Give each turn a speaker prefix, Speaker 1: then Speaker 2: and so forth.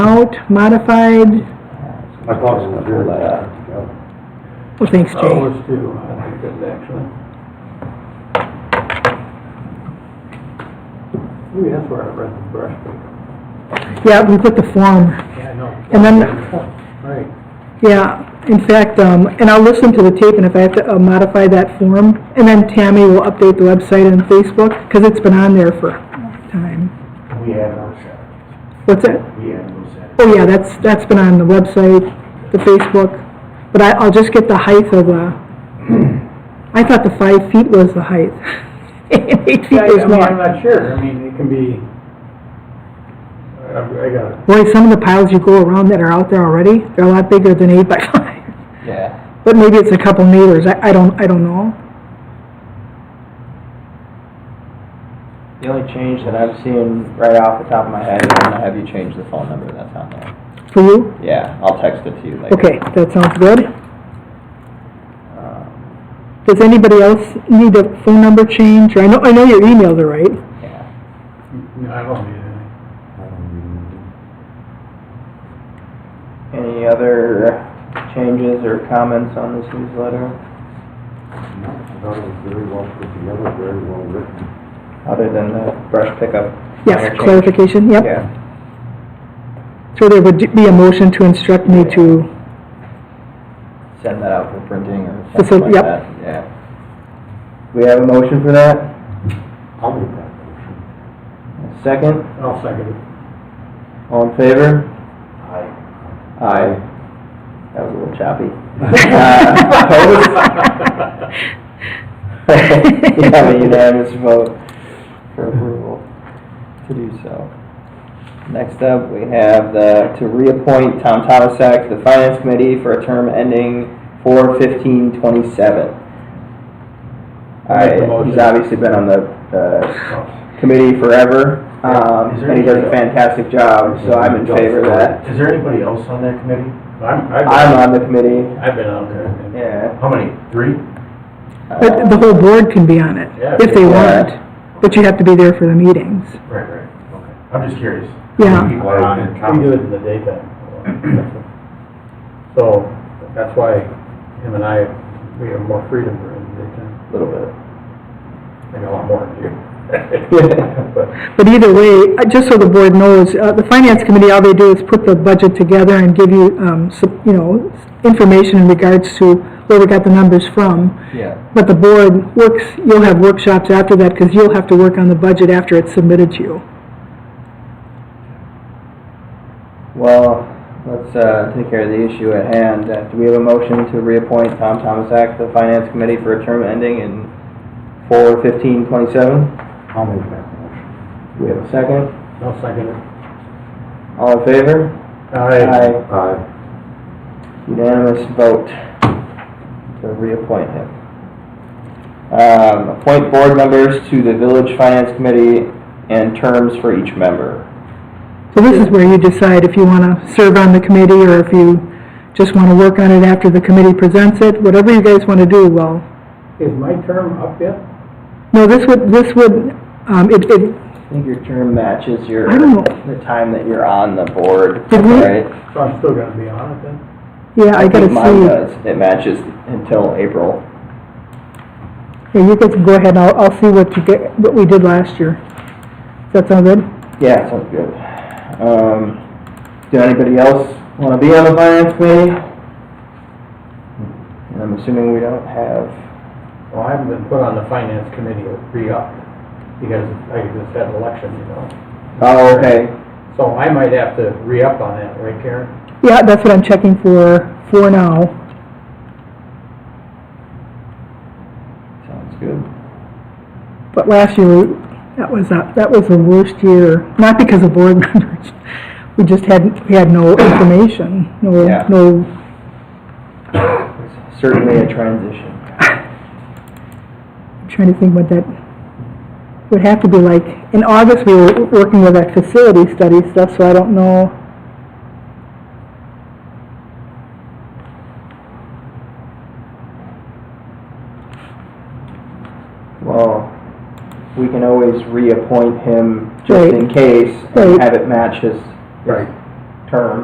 Speaker 1: out modified,
Speaker 2: My clock's not here.
Speaker 1: well, thanks,
Speaker 3: Oh,
Speaker 1: Jay.
Speaker 3: it's due, I think that's actually. Maybe that's where I read the brush pick.
Speaker 1: Yeah, we put the form,
Speaker 3: Yeah, I know.
Speaker 1: And then-
Speaker 3: Right,
Speaker 1: yeah, in fact, um, and I'll listen to the tape, and if I have to uh, modify that form, and then Tammy will update the website and Facebook, because it's been on there for a time.
Speaker 2: We had no Saturdays.
Speaker 1: What's that?
Speaker 2: We had no Saturdays.
Speaker 1: Oh, yeah, that's, that's been on the website, the Facebook, but I, I'll just get the height of, uh, I thought the five feet was the height. Eight feet
Speaker 3: Yeah, I
Speaker 1: was
Speaker 3: mean, I'm
Speaker 1: more.
Speaker 3: not sure, I mean, it can be, I, I got it.
Speaker 1: Boy, some of the piles you go around that are out there already, they're a lot bigger than eight by five.
Speaker 4: Yeah.
Speaker 1: But maybe it's a couple meters, I, I don't, I don't know.
Speaker 4: The only change that I've seen right off the top of my head is when I have you change the phone number that's on there.
Speaker 1: For you?
Speaker 4: Yeah, I'll text it to you later.
Speaker 1: Okay, that sounds good.
Speaker 4: Um,
Speaker 1: Does anybody else need a phone number change, or I know, I know your emails are right.
Speaker 4: yeah.
Speaker 3: no, I don't need anything.
Speaker 4: Any other changes or comments on this newsletter,
Speaker 2: No, I thought it was very well put together, very well written.
Speaker 4: other than the brush pickup? minor
Speaker 1: Yes,
Speaker 4: change?
Speaker 1: clarification, yep.
Speaker 4: Yeah,
Speaker 1: So there would be a motion to instruct me to
Speaker 4: send that out for printing or
Speaker 1: Just send-
Speaker 4: something like
Speaker 1: yep.
Speaker 4: that, yeah. We have a motion for that?
Speaker 2: I'll make that motion.
Speaker 4: Second,
Speaker 3: I'll second it.
Speaker 4: all in favor?
Speaker 2: I,
Speaker 4: Aye. That was a little choppy. Uh, opposed? You have a unanimous vote for approval to do so. Next up, we have the, to reappoint Tom Tomasak to the Finance Committee for a term ending four fifteen twenty-seven.
Speaker 3: I'll make the
Speaker 4: I, he's
Speaker 3: motion.
Speaker 4: obviously been on the, uh, committee forever, um,
Speaker 2: Is there
Speaker 4: and he does a
Speaker 2: anybody else?
Speaker 4: fantastic job, so I'm in favor of that.
Speaker 2: Is there anybody else on that committee?
Speaker 3: I'm,
Speaker 4: I'm
Speaker 3: I've
Speaker 4: on the committee,
Speaker 3: been, I've been out there.
Speaker 4: yeah.
Speaker 2: How many? Three?
Speaker 4: uh,
Speaker 1: But the whole board can be on it,
Speaker 3: Yeah,
Speaker 1: if they
Speaker 4: yeah.
Speaker 1: want, but you have to be there for the meetings.
Speaker 2: Right, right, okay. I'm just curious.
Speaker 1: Yeah.
Speaker 2: People are on it.
Speaker 3: We do it in the daytime. So, that's why him and I, we have more freedom during the daytime,
Speaker 4: Little bit.
Speaker 3: maybe a lot more than you. But,
Speaker 1: But either way, uh, just so the board knows, uh, the finance committee, all they do is put the budget together and give you, um, sup- you know, information in regards to where we got the numbers from.
Speaker 4: Yeah.
Speaker 1: But the board works, you'll have workshops after that, because you'll have to work on the budget after it's submitted to you.
Speaker 4: Well, let's uh, take care of the issue at hand. Uh, Do we have a motion to reappoint Tom Tomasak to the Finance Committee for a term ending in 4/15/27?
Speaker 2: I'll make that motion.
Speaker 4: Do we have a second?
Speaker 3: I'll second it.
Speaker 4: All in favor? Aye.
Speaker 2: Aye.
Speaker 4: Unanimous vote to reappoint him. Um, Appoint board members to the Village Finance Committee and terms for each member.
Speaker 1: So this is where you decide if you want to serve on the committee, or if you just want to work on it after the committee presents it, whatever you guys want to do, well,
Speaker 3: Is my term up yet?
Speaker 1: No, this would, this would, um, it, it,
Speaker 4: I think your term matches your,
Speaker 1: I don't know.
Speaker 4: the time that you're on the board,
Speaker 1: Did we-
Speaker 4: right?
Speaker 3: So I'm still gonna be on it then?
Speaker 1: yeah, I gotta
Speaker 4: think Mine
Speaker 1: see.
Speaker 4: does. It matches until April.
Speaker 1: Yeah, you guys go ahead, I'll, I'll see what you get, what we did last year. Does that sound good?
Speaker 4: Yeah, sounds good. Um, do anybody else wanna be on the finance committee? And I'm assuming we don't have,
Speaker 3: Well, I haven't been put on the finance committee to re-up, because I just had an election, you know.
Speaker 4: oh, okay.
Speaker 3: So I might have to re-up on that, right Karen?
Speaker 1: Yeah, that's what I'm checking for, for now.
Speaker 4: Sounds good.
Speaker 1: But last year, we- that was, a- that was the worst year, not because of board members. We just had, we had no information, no,
Speaker 4: Yeah.
Speaker 1: no,
Speaker 4: Certainly a transition.
Speaker 1: I'm trying to think what that would have to be like. In August, we were working with that facility study stuff, so I don't know.
Speaker 4: Well, we can always reappoint him just
Speaker 1: Right.
Speaker 4: in case and
Speaker 1: Right.
Speaker 4: have it match his
Speaker 3: Right.
Speaker 4: term